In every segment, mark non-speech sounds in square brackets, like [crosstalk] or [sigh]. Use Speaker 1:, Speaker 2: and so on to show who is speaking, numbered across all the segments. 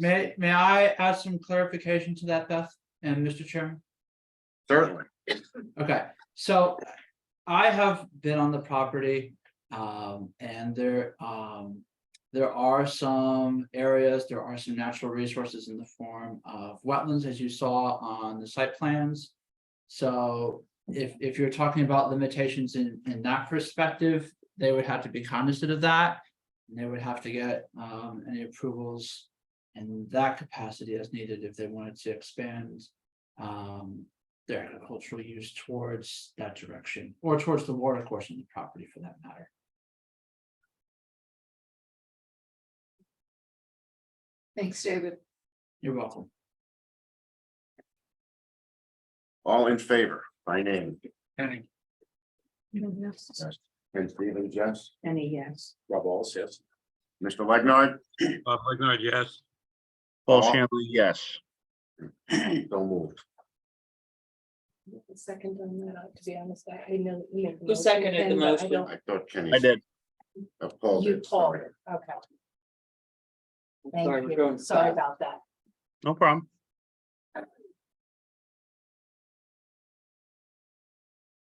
Speaker 1: May, may I add some clarification to that, Beth and Mr. Chairman?
Speaker 2: Certainly.
Speaker 1: Okay, so I have been on the property, um, and there, um, there are some areas, there are some natural resources in the form of wetlands, as you saw on the site plans. So if, if you're talking about limitations in, in that perspective, they would have to be cognizant of that. And they would have to get, um, any approvals in that capacity as needed if they wanted to expand, um, their agricultural use towards that direction, or towards the water course in the property for that matter.
Speaker 3: Thanks, David.
Speaker 1: You're welcome.
Speaker 2: All in favor, by name,
Speaker 1: Henning.
Speaker 4: Mm-hmm.
Speaker 2: and Stephen, yes,
Speaker 3: Any yes.
Speaker 2: Rob Alls, yes. Mr.
Speaker 3: [clears throat]
Speaker 2: Legnard?
Speaker 5: Bob Leonard, yes.
Speaker 2: Paul
Speaker 5: Shanley, yes.
Speaker 2: So moved.
Speaker 3: Second on that, uh, to be honest, I I know. you made the
Speaker 4: Who
Speaker 3: motion,
Speaker 4: seconded the
Speaker 3: Ken, but I
Speaker 4: motion?
Speaker 3: don't-
Speaker 2: I thought Kenny.
Speaker 5: I did.
Speaker 2: Uh, Paul
Speaker 3: You
Speaker 2: did.
Speaker 3: called
Speaker 2: sorry.
Speaker 3: it, okay.
Speaker 4: Sorry, we're
Speaker 3: Thank you,
Speaker 4: going
Speaker 3: sorry
Speaker 4: fast.
Speaker 3: about that.
Speaker 5: No problem.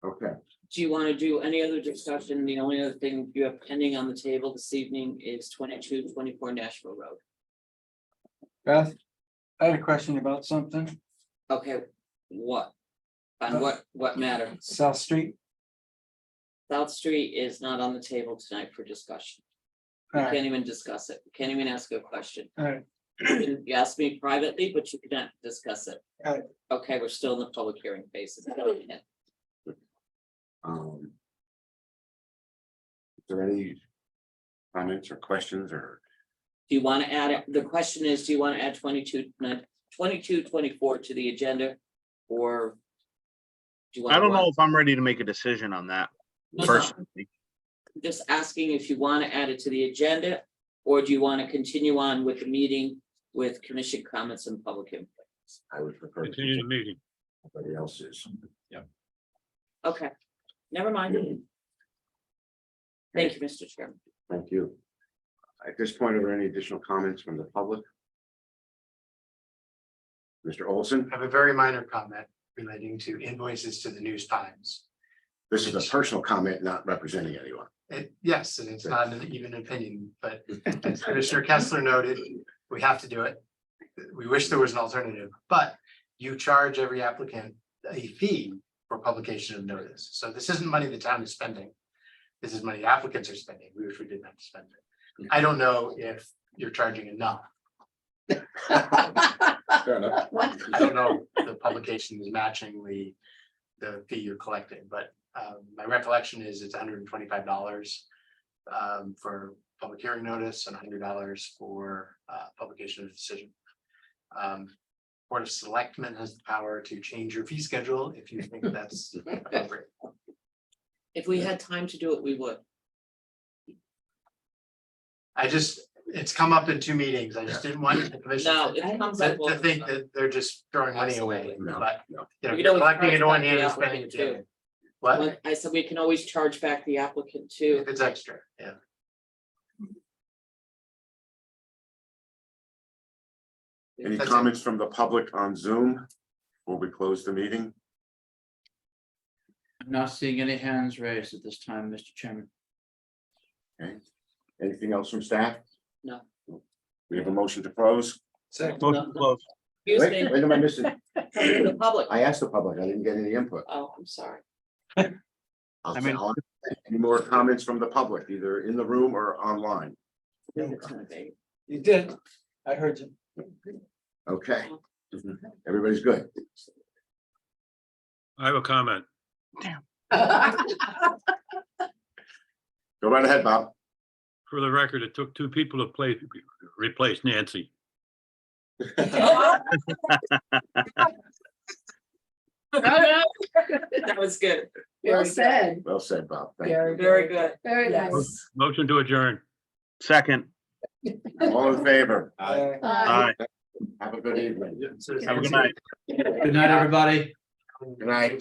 Speaker 2: Okay,
Speaker 4: Do you want to do any other discussion? The only other thing you have pending on the table this evening is twenty-two, twenty-four Nashville Road.
Speaker 6: Beth, I had a question about something,
Speaker 4: Okay, what? On what, what matter?
Speaker 6: South Street.
Speaker 4: South Street is not on the table tonight for discussion. We
Speaker 6: All right,
Speaker 4: Can't even discuss it. We Can't even ask a question.
Speaker 6: all right,
Speaker 4: You asked me privately, but you cannot discuss it.
Speaker 6: Alright.
Speaker 4: Okay, we're still in the public hearing phase. It's not yet.
Speaker 2: um. Is there any comments or questions or?
Speaker 4: Do you want to add, it? the question is, do you want to add 22, 22, 24 to the agenda? Or? do you want?
Speaker 5: I don't know if I'm ready to make a decision on that
Speaker 4: No, no.
Speaker 5: personally.
Speaker 4: Just asking if you want to add it to the agenda, or do you want to continue on with the meeting with commission comments and public input?
Speaker 2: I would prefer. to
Speaker 5: Continue the meeting.
Speaker 2: Somebody else's.
Speaker 4: Okay, never mind. Thank you, Mr. Chairman.
Speaker 2: Thank you. At this point, are there any additional comments from the public? Mr. Olson,
Speaker 7: I have a very minor comment relating to invoices to the News Times.
Speaker 2: this is a personal comment, not representing anyone.
Speaker 7: It- yes, and it's not an even opinion, but as Commissioner Kessler noted, we have to do it. We wish there was an alternative, but you charge every applicant a fee for publication of notice. So this isn't money the town is spending. This is money applicants are spending. We wish we didn't have to spend it. I don't know if you're charging enough.
Speaker 2: Fair
Speaker 3: [laughs]
Speaker 2: enough.
Speaker 7: I don't know, if the publication is matching the, the fee you're collecting, but um, my recollection is it's hundred and twenty-five dollars. Um, for public hearing notice and hundred dollars for uh, publication of decision. Um, Board of Selectmen has the power to change your fee schedule if you think
Speaker 4: [laughs]
Speaker 7: that's appropriate.
Speaker 4: If we had time to do it, we would.
Speaker 7: I just, it's come up in two meetings. I just didn't want the commission
Speaker 4: No,
Speaker 7: to
Speaker 4: it comes up. all
Speaker 7: to
Speaker 4: the
Speaker 7: think
Speaker 4: time.
Speaker 7: that they're just throwing money away,
Speaker 4: Absolutely.
Speaker 2: No,
Speaker 7: but,
Speaker 2: no.
Speaker 7: you know,
Speaker 4: We
Speaker 7: you're
Speaker 4: don't
Speaker 7: collecting it
Speaker 4: encourage
Speaker 7: on
Speaker 4: that
Speaker 7: hand and
Speaker 4: the
Speaker 7: spending it
Speaker 4: applicant
Speaker 7: the
Speaker 4: too.
Speaker 7: other. What?
Speaker 4: Well, I said we can always charge back the applicant too.
Speaker 7: If it's extra, yeah.
Speaker 2: Any
Speaker 7: That's it.
Speaker 2: comments from the public on Zoom? Will we close the meeting?
Speaker 1: I'm not seeing any hands raised at this time, Mr. Chairman.
Speaker 2: Okay. Anything else from staff?
Speaker 4: No.
Speaker 2: We have a motion to close.
Speaker 5: Motion to close.
Speaker 4: Excuse
Speaker 2: Wait,
Speaker 4: me,
Speaker 2: Wait, am I missing?
Speaker 4: [laughs] the public.
Speaker 2: I asked the public, I didn't get any input.
Speaker 4: Oh, I'm sorry.
Speaker 2: I'll-
Speaker 5: I mean-
Speaker 2: I'll- Any more comments from the public, either in the room or online?
Speaker 3: [laughs]
Speaker 4: [laughs]
Speaker 6: you did, I heard you.
Speaker 2: Okay. Everybody's good.
Speaker 5: I have a comment.
Speaker 2: Go right ahead, Bob.
Speaker 5: For the record, it took two people to play, replace Nancy.
Speaker 3: Oh, [laughs]
Speaker 4: That was good.
Speaker 3: Well said,
Speaker 2: Well said, Bob. Thank you.
Speaker 3: very, very,
Speaker 4: Very good.
Speaker 3: very nice.
Speaker 5: Motion to adjourn. Second.
Speaker 2: All in favor?
Speaker 6: Aye.
Speaker 3: Bye.
Speaker 5: Aye.
Speaker 2: Have a good evening.
Speaker 5: Uh, Have a good night.
Speaker 1: Good night, everybody.
Speaker 2: Good night.